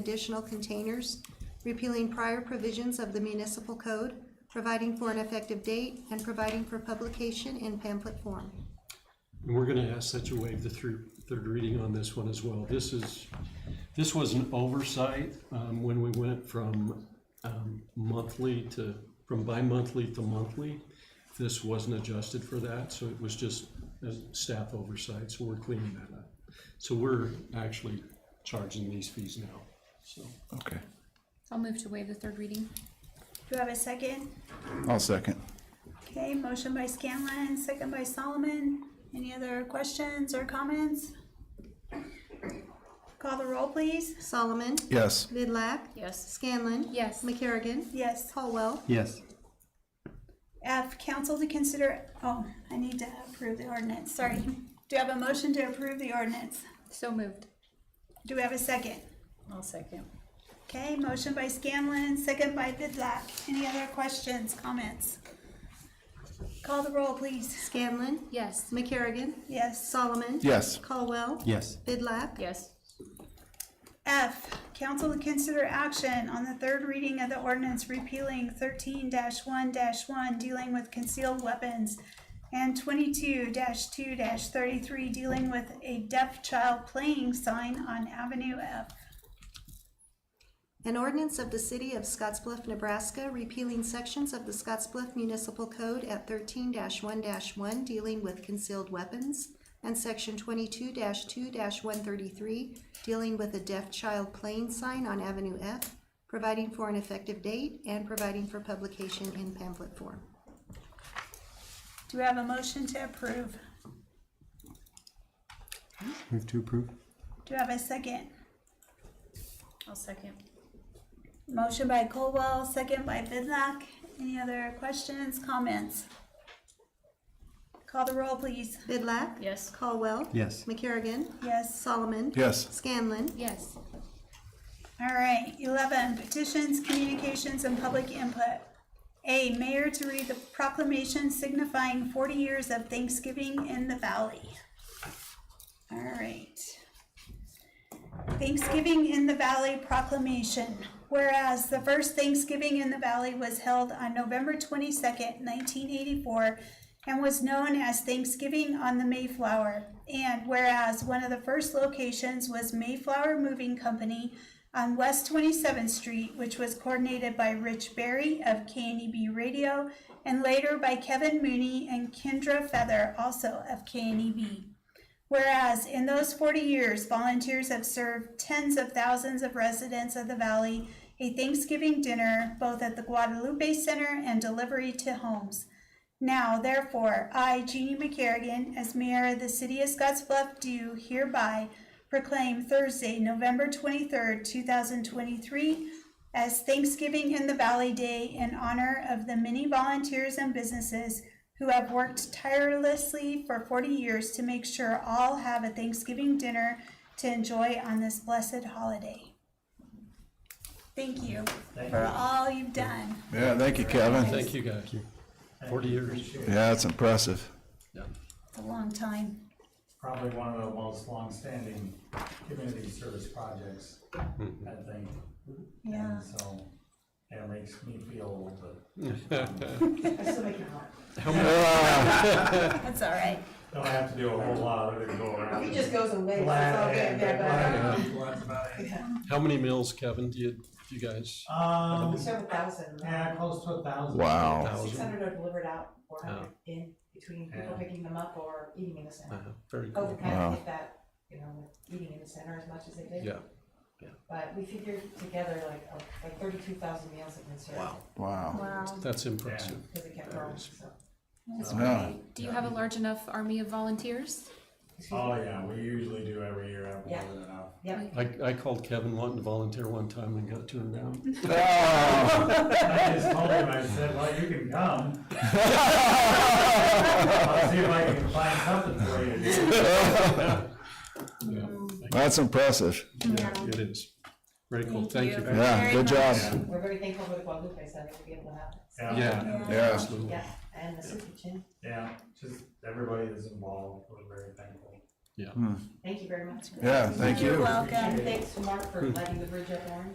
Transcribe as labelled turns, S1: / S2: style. S1: additional containers, repealing prior provisions of the municipal code, providing for an effective date, and providing for publication in pamphlet form.
S2: And we're gonna ask that you waive the through, third reading on this one as well. This is, this was an oversight, um, when we went from, um, monthly to, from bi-monthly to monthly. This wasn't adjusted for that, so it was just a staff oversight, so we're cleaning that up. So we're actually charging these fees now, so.
S3: Okay,
S4: I'll move to waive the third reading.
S5: Do I have a second?
S3: I'll second.
S5: Okay, motion by Scanlon, second by Solomon. Any other questions or comments? Call the roll, please.
S1: Solomon.
S3: Yes,
S1: Vidlac.
S4: Yes.
S1: Scanlon.
S4: Yes.
S1: McCarrigan.
S5: Yes.
S1: Caldwell.
S2: Yes.
S5: F, council to consider, oh, I need to approve the ordinance, sorry. Do I have a motion to approve the ordinance?
S4: So moved.
S5: Do we have a second?
S4: I'll second.
S5: Okay, motion by Scanlon, second by Vidlac. Any other questions, comments? Call the roll, please.
S1: Scanlon.
S4: Yes.
S1: McCarrigan.
S5: Yes.
S1: Solomon.
S3: yes,
S1: Caldwell.
S2: Yes.
S1: Vidlac.
S4: Yes.
S5: F, council to consider action on the third reading of the ordinance repealing thirteen one one dealing with concealed weapons and twenty-two two thirty-three dealing with a deaf child playing sign on Avenue F.
S1: An ordinance of the City of Scottsbluff, Nebraska, repealing sections of the Scottsbluff Municipal Code at thirteen one one dealing with concealed weapons and section twenty-two two one thirty-three dealing with a deaf child playing sign on Avenue F, providing for an effective date and providing for publication in pamphlet form.
S5: Do we have a motion to approve?
S6: Move to approve?
S5: Do we have a second?
S4: I'll second.
S5: Motion by Colwell, second by Vidlac. Any other questions, comments? Call the roll, please.
S1: Vidlac.
S4: Yes.
S1: Caldwell.
S6: Yes.
S1: McCarrigan.
S5: Yes.
S1: Solomon.
S3: yes,
S1: Scanlon.
S4: Yes.
S5: All right, eleven, petitions, communications, and public input. A, mayor to read the proclamation signifying forty years of Thanksgiving in the valley. All right. Thanksgiving in the Valley proclamation. Whereas the first Thanksgiving in the Valley was held on November twenty-second, nineteen eighty-four, and was known as Thanksgiving on the Mayflower. And whereas one of the first locations was Mayflower Moving Company on West Twenty-seventh Street, which was coordinated by Rich Berry of KNEB Radio, and later by Kevin Mooney and Kendra Feather, also of E KNEB. Whereas in those 40 years, volunteers have served tens of thousands of residents of the valley a Thanksgiving dinner both at the Guadalupe Center and delivery to homes. Now, therefore, I, Jeannie McCarrigan, as mayor of the city of Scottsbluff, do hereby proclaim Thursday, November 23rd, 2023, as Thanksgiving in the Valley Day in honor of the many volunteers and businesses who have worked tirelessly for 40 years to make sure all have a Thanksgiving dinner to enjoy on this blessed holiday. Thank you for all you've done.
S3: yeah, thank you, Kevin.
S2: Thank you, guys. Forty years.
S3: Yeah, that's impressive.
S5: It's a long time.
S7: probably one of the most longstanding community service projects, I think.
S5: Yeah.
S7: And so, yeah, it makes me feel old, but
S5: That's all right.
S7: don't have to do a whole lot of it to go around.
S8: It just goes away.
S7: Glad-
S8: Glad.
S7: glad- glad about it.
S2: How many mills, Kevin, do you, do you guys?
S7: Um,
S8: Several thousand.
S7: yeah, close to a thousand.
S3: Wow.
S8: Six hundred are delivered out, four hundred in between people
S7: Yeah.
S8: picking them up or eating in the
S2: Uh,
S8: center.
S2: Very cool.
S3: Wow.
S8: Overpass did that, you know, with eating in the center as much as they did.
S2: Yeah.
S8: But we figured together like, uh, like thirty-two thousand meals have been served.
S3: Wow.
S5: Wow.
S2: That's impressive.
S8: Because it kept
S2: That
S8: growing,
S2: is-
S8: so.
S5: That's
S3: Yeah.
S5: great.
S4: Do you have a large enough army of volunteers?
S8: Excuse me.
S7: Oh, yeah, we usually do every year, have more
S8: Yeah.
S7: than enough.
S8: Yep.
S2: I, I called Kevin wanting to volunteer one time and got turned down.
S3: Oh.
S7: I just told him, I said, well, you can come, I'll see if I can find something for you to do.
S2: Yeah,
S3: That's impressive.
S2: Yeah, it is. Very cool. Thank you.
S3: Yeah,
S5: Very
S3: good job.
S7: much.
S8: We're very thankful for the Guadalupe Center to be able to have this.
S7: Yeah,
S3: Yeah,
S2: Absolutely.
S8: Yeah, and the soup kitchen.
S7: yeah, just everybody that's involved, we're very thankful.
S2: yeah.
S8: Thank you very much.
S3: Yeah, thank you.
S5: You're welcome.
S8: And thanks to Mark for lighting the bridge up orange.